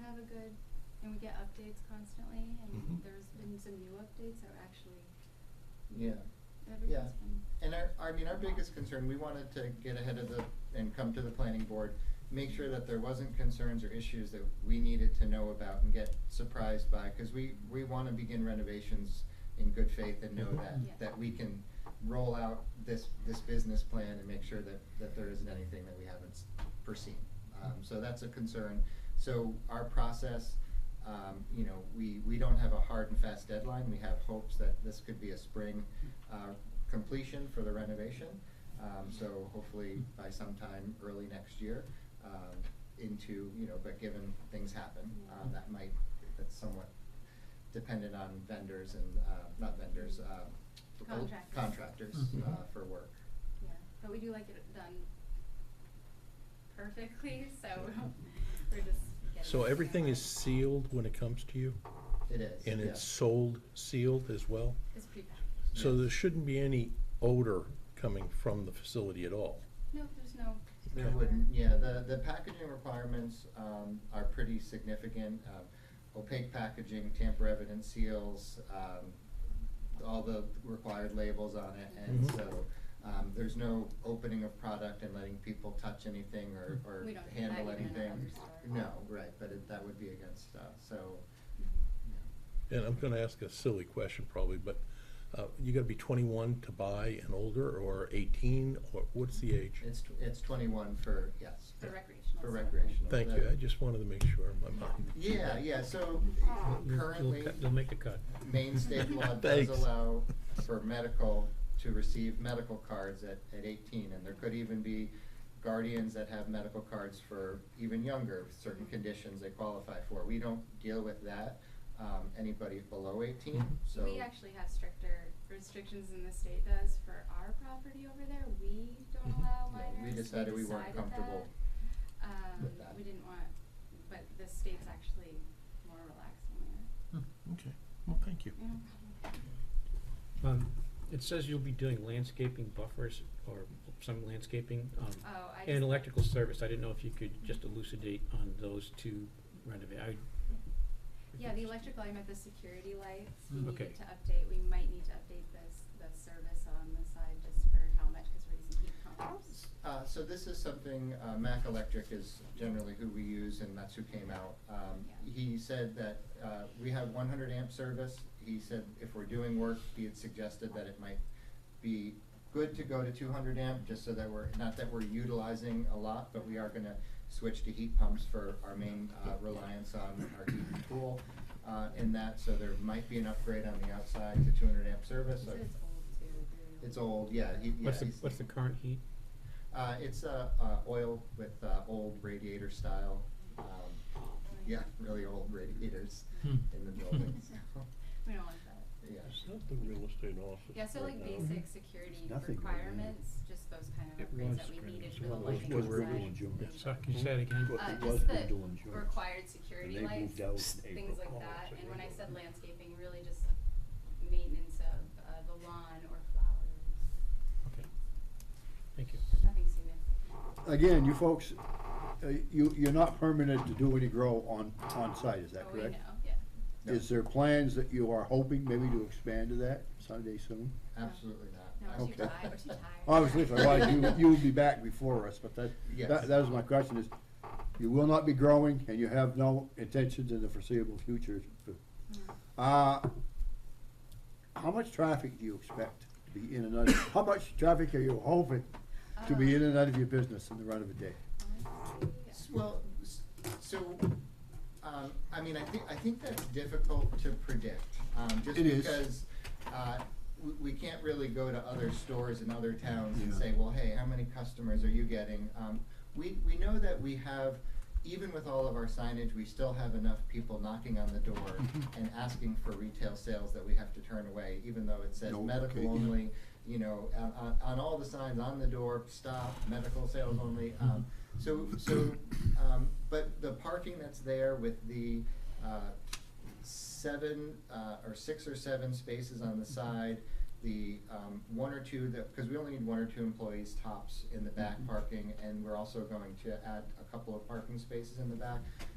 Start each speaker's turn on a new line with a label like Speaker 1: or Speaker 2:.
Speaker 1: have a good, and we get updates constantly, and
Speaker 2: Mhm.
Speaker 1: there's been some new updates that are actually.
Speaker 3: Yeah. Yeah.
Speaker 1: Everything's been.
Speaker 3: And our, I mean, our biggest concern, we wanted to get ahead of the, and come to the planning board, make sure that there wasn't concerns or issues that we needed to know about and get surprised by, cause we, we wanna begin renovations in good faith and know
Speaker 1: Yeah.
Speaker 3: that, that we can roll out this, this business plan and make sure that, that there isn't anything that we haven't s- foreseen. Um, so that's a concern. So our process, um, you know, we, we don't have a hard and fast deadline. We have hopes that this could be a spring, uh, completion for the renovation. Um, so hopefully by sometime early next year, um, into, you know, but given things happen, uh, that might, that's somewhat dependent on vendors and, uh, not vendors, uh,
Speaker 1: Contractors.
Speaker 3: contractors,
Speaker 2: Mhm.
Speaker 3: uh, for work.
Speaker 1: Yeah, but we do like it done perfectly, so we're just getting.
Speaker 2: So
Speaker 1: it
Speaker 2: everything is
Speaker 1: right.
Speaker 2: sealed when it comes to you?
Speaker 3: It is,
Speaker 2: And
Speaker 3: yeah.
Speaker 2: it's sold sealed as well?
Speaker 1: It's prepackaged.
Speaker 2: So
Speaker 3: Yes.
Speaker 2: there shouldn't be any odor coming from the facility at all?
Speaker 1: No, there's no.
Speaker 3: There
Speaker 2: Okay.
Speaker 3: wouldn't, yeah, the, the packaging requirements, um, are pretty significant, uh, opaque packaging, tamper evident seals, um, all the required labels on it, and
Speaker 2: Mhm.
Speaker 3: so, um, there's no opening of product and letting people touch anything or,
Speaker 2: Mm-hmm.
Speaker 3: or
Speaker 1: We don't do that
Speaker 3: handle
Speaker 1: even in
Speaker 3: anything.
Speaker 1: our other store.
Speaker 3: No, right, but it, that would be against, uh, so,
Speaker 1: Mm-hmm.
Speaker 3: yeah.
Speaker 2: And I'm gonna ask a silly question probably, but, uh, you gotta be twenty-one to buy and older, or eighteen, or what's the age?
Speaker 3: it's, tw- it's twenty-one for, yes.
Speaker 1: For recreational
Speaker 3: For
Speaker 1: stuff.
Speaker 3: recreational.
Speaker 2: Thank
Speaker 3: That-
Speaker 2: you, I just wanted to make sure in my mind.
Speaker 3: Yeah, yeah, so
Speaker 4: They'll-
Speaker 3: currently.
Speaker 4: They'll, cut- they'll make a cut.
Speaker 3: Maine state law does
Speaker 2: Thanks.
Speaker 3: allow for medical, to receive medical cards at, at eighteen, and there could even be guardians that have medical cards for even younger, certain conditions they qualify for. We don't deal with that, um, anybody below eighteen,
Speaker 2: Mhm.
Speaker 3: so.
Speaker 1: Mm-hmm. We actually have stricter restrictions than the state does for our property over there. We don't
Speaker 2: Mhm.
Speaker 1: allow
Speaker 3: Mm-hmm. Yeah,
Speaker 1: minors.
Speaker 3: we decided we weren't
Speaker 1: decided
Speaker 3: comfortable
Speaker 1: that. Um,
Speaker 3: with that.
Speaker 1: we didn't want, but the state's actually more relaxed on that.
Speaker 2: Okay, well, thank you.
Speaker 1: No problem.
Speaker 4: Um, it says you'll be doing landscaping buffers or some landscaping, um,
Speaker 1: Oh, I
Speaker 4: and
Speaker 1: just-
Speaker 4: electrical service. I didn't know if you could just elucidate on those two renovate, I.
Speaker 1: Yeah, the electrical, I meant the security lights, we
Speaker 4: Mm. Okay.
Speaker 1: needed to update, we might need to update this, the service on the side just for how much, cause we're using heat pumps.
Speaker 3: Uh, so this is something, uh, Mac Electric is generally who we use and that's who came out. Um,
Speaker 1: Yeah.
Speaker 3: he said that, uh, we have one hundred amp service. He said if we're doing work, he had suggested that it might be good to go to two hundred amp, just so that we're, not that we're utilizing a lot, but we are gonna switch to heat pumps for our main, uh, reliance on our heat and cool. Uh, in that, so there might be an upgrade on the outside to two hundred amp service.
Speaker 1: He said it's old too, very old.
Speaker 3: It's old, yeah, he, yeah.
Speaker 4: What's the,
Speaker 3: he's-
Speaker 4: what's the current heat?
Speaker 3: uh, it's uh, uh, oil with uh, old radiator style. Um, yeah, really old radiators
Speaker 4: Hmm.
Speaker 3: in the building. so,
Speaker 1: We don't want that.
Speaker 3: yeah.
Speaker 2: not the real estate office
Speaker 1: Yeah, so like basic security
Speaker 5: Nothing right now.
Speaker 1: requirements, just those kind of
Speaker 5: It
Speaker 1: upgrades
Speaker 5: was
Speaker 1: that we
Speaker 5: kind of-
Speaker 1: needed
Speaker 5: it's
Speaker 1: for the
Speaker 5: one of those
Speaker 1: lighting
Speaker 2: things we're
Speaker 1: outside.
Speaker 2: doing, Jim.
Speaker 4: Yeah, sorry, can you say that again?
Speaker 5: But
Speaker 1: Uh,
Speaker 5: it was
Speaker 1: just
Speaker 5: good
Speaker 1: the
Speaker 5: doing jobs.
Speaker 1: required security
Speaker 5: And they
Speaker 1: lights,
Speaker 5: moved out in
Speaker 1: things
Speaker 5: April.
Speaker 1: like
Speaker 5: Oh,
Speaker 1: that,
Speaker 5: so
Speaker 1: and when I
Speaker 5: they-
Speaker 1: said landscaping, really just maintenance of, uh, the lawn or flowers,
Speaker 4: Okay. Thank you.
Speaker 1: nothing significant.
Speaker 5: Again, you folks, uh, you, you're not permitted to do any grow on, on site, is that
Speaker 1: Oh, we
Speaker 5: correct?
Speaker 1: know, yeah.
Speaker 3: No,
Speaker 5: Is there plans that you are hoping maybe to expand to that someday soon?
Speaker 3: absolutely
Speaker 1: No,
Speaker 3: not.
Speaker 1: I'm too
Speaker 5: Okay.
Speaker 1: tired, I'm too tired.
Speaker 5: Obviously, if I was, you, you would be back before us, but that,
Speaker 3: Yes.
Speaker 5: that, that is my question is, you will not be growing and you have no intentions in the foreseeable future. to-
Speaker 1: Mm.
Speaker 5: Uh, how much traffic do you expect to be in and out, how much traffic are you hoping to
Speaker 1: Oh.
Speaker 5: be in and out of your business in the run of a day?
Speaker 1: Honestly,
Speaker 3: Well, s- so, um, I mean, I think, I think that's difficult to predict, um, just
Speaker 5: It is.
Speaker 3: because, uh, we, we can't really go to other stores in other towns and
Speaker 5: Yeah.
Speaker 3: say, well, hey, how many customers are you getting? Um, we, we know that we have, even with all of our signage, we still have enough people knocking on the door
Speaker 5: Mm-hmm.
Speaker 3: and asking for retail sales that we have to turn away, even though it says
Speaker 5: No, okay,
Speaker 3: medical
Speaker 5: yeah.
Speaker 3: only, you know, on, on, on all the signs, on the door, stop, medical sales
Speaker 5: Mm-hmm.
Speaker 3: only, um, so, so, um, but the parking that's there with the, uh, seven, uh, or six or seven spaces on the side, the, um, one or two that, cause we only need one or two employees
Speaker 5: Mm-hmm.
Speaker 3: tops in the back parking, and we're also going to add a couple of parking spaces in the back.